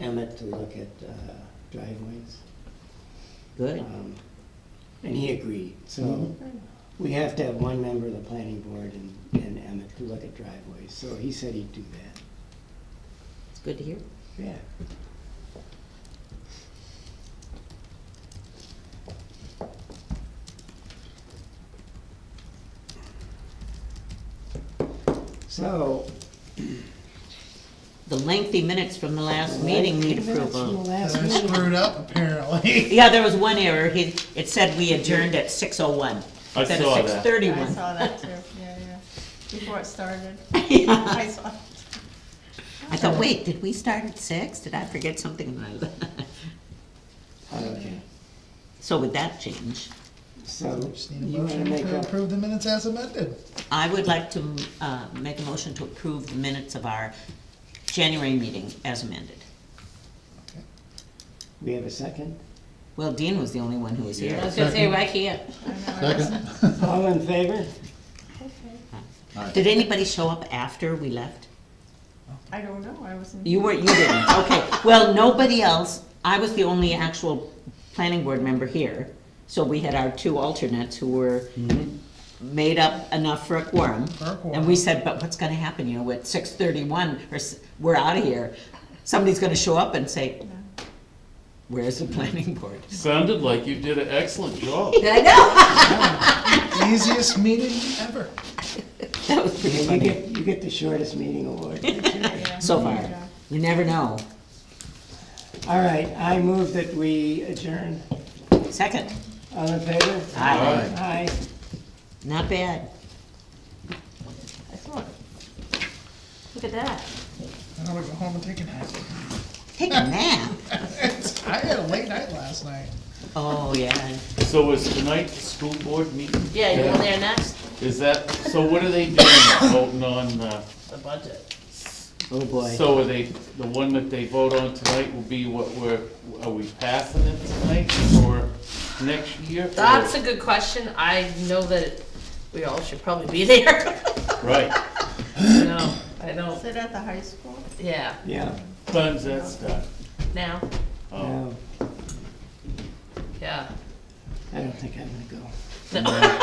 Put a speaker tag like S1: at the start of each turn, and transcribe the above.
S1: Emmett to look at uh, driveways.
S2: Good.
S1: Um, And he agreed,
S2: Mm-hmm.
S1: so we have to have one member of the planning board and, and Emmett to look at driveways, so he said he'd do that.
S2: It's good to hear.
S1: Yeah. So.
S2: The lengthy minutes from the last meeting need
S1: Minutes from the
S2: approval.
S1: last
S3: I
S1: meeting.
S3: screwed up apparently.
S2: Yeah, there was one error. He, it said we adjourned at six oh one.
S4: I
S2: instead of
S4: saw that.
S2: six
S5: I
S2: thirty-one.
S5: saw that too, yeah, yeah, before it started. I saw it.
S2: I thought, wait, did we start at six? Did I forget something?
S1: Okay,
S2: So would that change?
S1: so
S3: Just need
S1: you
S3: a
S1: want to
S3: motion
S1: make
S3: to
S1: a
S3: approve the minutes as amended.
S2: I would like to, uh, make a motion to approve the minutes of our January meeting as amended.
S1: We have a second?
S2: Well, Dean was the only one who was here.
S6: I was gonna say, why can't?
S5: I know, I wasn't-
S3: Second.
S1: All in favor?
S5: okay.
S2: Did anybody show up after we left?
S5: I don't know, I wasn't.
S2: You weren't, you didn't, okay. Well, nobody else, I was the only actual planning board member here. So we had our two alternates who were made up enough for a quorum.
S3: Mm-hmm. For a quorum.
S2: And we said, but what's gonna happen, you know, at six thirty-one, or s- we're out of here. Somebody's gonna show up and say, where's the planning board?
S4: Sounded like you did an excellent job.
S2: I know.
S3: Easiest meeting ever.
S2: That was pretty
S1: You
S2: funny,
S1: get, you get the shortest meeting award.
S5: Yeah.
S2: so far.
S3: Mm-hmm.
S5: Yeah.
S2: You never know.
S1: All right, I move that we adjourn.
S2: Second,
S1: All in favor?
S2: Aye.
S1: Aye.
S2: not bad.
S5: I saw it.
S6: Look at that.
S3: I don't wanna go home and take a nap.
S2: Take a nap.
S3: It's- I had a late night last night.
S2: Oh, yeah.
S4: So is tonight the school board meeting?
S6: Yeah, you go there next,
S4: Is that, so what are they doing, voting on, uh,
S6: the budget.
S2: Oh, boy.
S4: so are they, the one that they vote on tonight will be what we're, are we passing it tonight or next year?
S6: That's a good question. I know that we all should probably be there.
S4: Right,
S6: No, I don't,
S5: Is it at the high school?
S6: yeah,
S1: Yeah.
S4: times that stuff.
S6: now,
S4: Oh.
S1: No,
S6: yeah.
S1: I don't think I'm gonna go.